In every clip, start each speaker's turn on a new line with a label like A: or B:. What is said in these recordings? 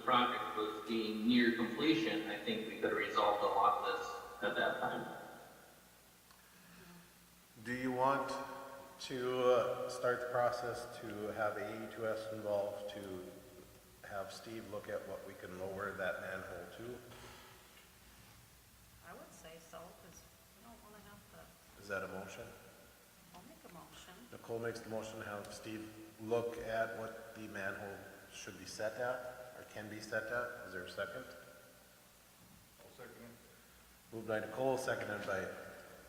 A: project was being near completion, I think we could have resolved a lot of this at that time.
B: Do you want to uh, start the process to have AE2S involved, to have Steve look at what we can lower that manhole to?
C: I would say so, because we don't want to have to,
B: Is that a motion?
C: I'll make a motion.
B: Nicole makes the motion, to have Steve look at what the manhole should be set at, or can be set at. Is there a second? Moved by Nicole, seconded by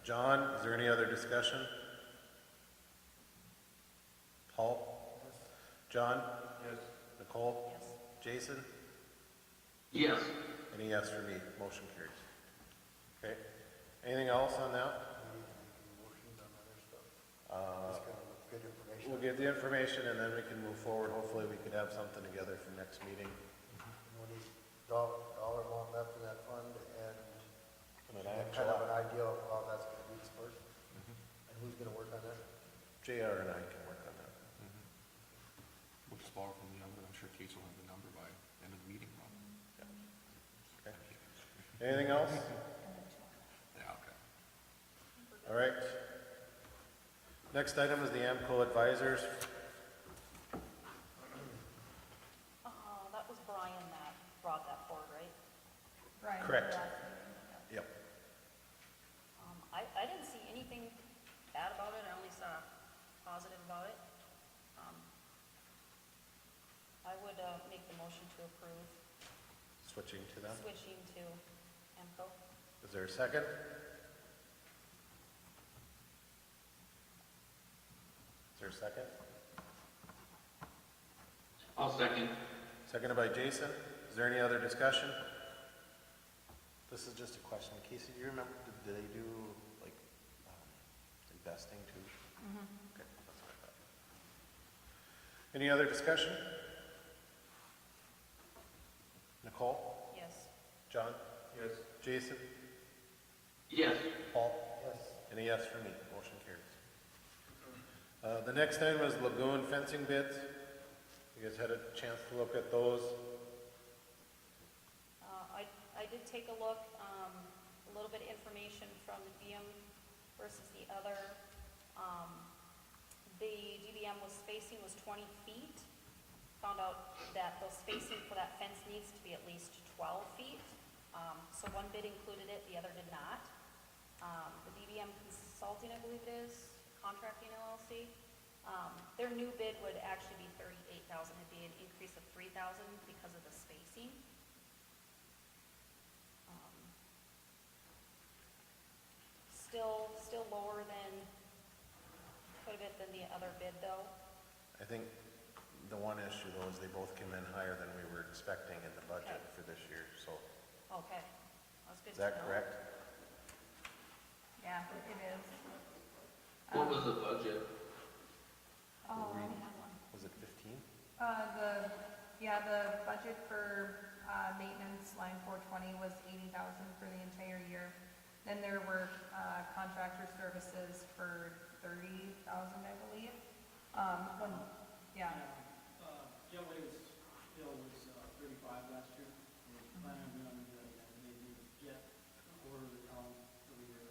B: John. Is there any other discussion? Paul? John? Yes. Nicole?
C: Yes.
B: Jason?
A: Yes,
B: Any yes for me? Motion carries. Okay. Anything else on that? We'll get the information and then we can move forward. Hopefully, we could have something together for next meeting.
D: What is dollar, dollar amount left in that fund and
B: And then
D: and kind of an idea of how that's gonna be dispersed? And who's gonna work on that?
B: JR and I can work on that.
E: We'll just borrow from the number, I'm sure Case will have the number by end of the meeting, probably.
B: Anything else?
E: Yeah, okay.
B: All right. Next item is the AMCO advisors.
C: Uh, that was Brian that brought that forward, right?
F: Right.
B: Correct. Yep.
C: Um, I, I didn't see anything bad about it, I only saw positive about it. Um, I would, uh, make the motion to approve
B: Switching to them.
C: switching to AMCO.
B: Is there a second? Is there a second?
A: I'll second.
B: Seconded by Jason. Is there any other discussion? This is just a question. Casey, do you remember, did- did they do like um, investing too? Okay, that's what I thought. Any other discussion? Nicole?
C: Yes.
B: John? Yes. Jason?
A: Yes,
B: Paul?
D: Yes.
B: And a yes for me. Motion carries. Uh, The next item is lagoon fencing bids. You guys had a chance to look at those.
C: Uh, I, I did take a look, um, a little bit of information from the DM versus the other. Um, the DBM was spacing was twenty feet. Found out that the spacing for that fence needs to be at least twelve feet. Um, so one bid included it, the other did not. Um, the DBM Consulting, I believe it is, contracting LLC. Um, their new bid would actually be thirty-eight thousand. It'd be an increase of three thousand because of the spacing. Um, Still, still lower than, quite a bit than the other bid though.
B: I think the one issue though is they both came in higher than we were expecting in the budget
C: Okay.
B: for this year, so
C: Okay, that's good
B: is
C: to know.
B: that correct?
C: Oh,
F: Yeah, it is.
A: what was the budget?
F: Um,
B: Was it fifteen?
F: Uh, the, yeah, the budget for, uh, maintenance line four twenty was eighty thousand for the entire year. Then there were, uh, contractor services for thirty thousand, I believe. Um, when, yeah,
G: Uh, Jetway's bill was uh, thirty-five last year. We're planning on doing that again, maybe get a quarter of the column for the year.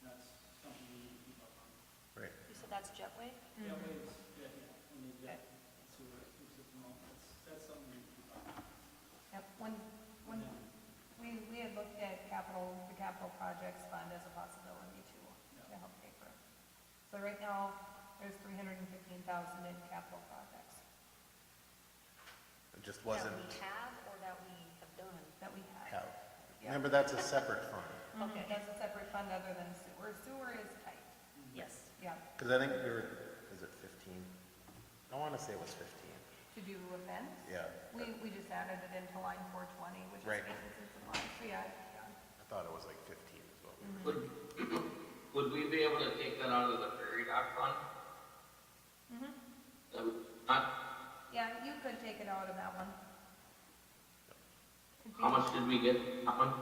G: That's something we need to keep up on.
B: Right.
C: You said that's Jetway?
G: Jetway's, yeah, yeah, and the jet sewer system, all, that's, that's something we need to keep up on.
F: yep, when, when, we, we had looked at capital, the capital projects fund as a possibility too, to help pay for. it. So right now, there's three hundred and fifteen thousand in capital projects
B: It just wasn't
C: That we have or that we have done?
F: that we have.
B: held. Remember, that's a separate fund,
F: Okay,
C: Okay,
B: Mm-hmm.
F: that's a separate fund other than sewer. Sewer is tight,
C: yes.
F: yeah,
B: because I think we were, is it fifteen? I want to say it was fifteen,
F: to do a fence.
B: yeah.
F: We, we just added it into line four twenty, which is
B: Right.
F: maintenance and supply, so yeah, yeah.
B: I thought it was like fifteen is what we
C: Mm-hmm.
B: were.
A: Would, would we be able to take that out of the prairie dog fund? That would not,
F: Yeah, you could take it out of that one. It'd be-
A: how much did we get, that one?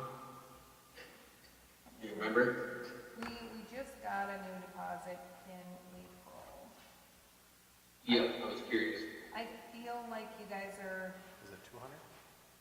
A: Do you remember?
F: We, we just got a new deposit in April.
A: Yeah, I was curious.
F: I feel like you guys are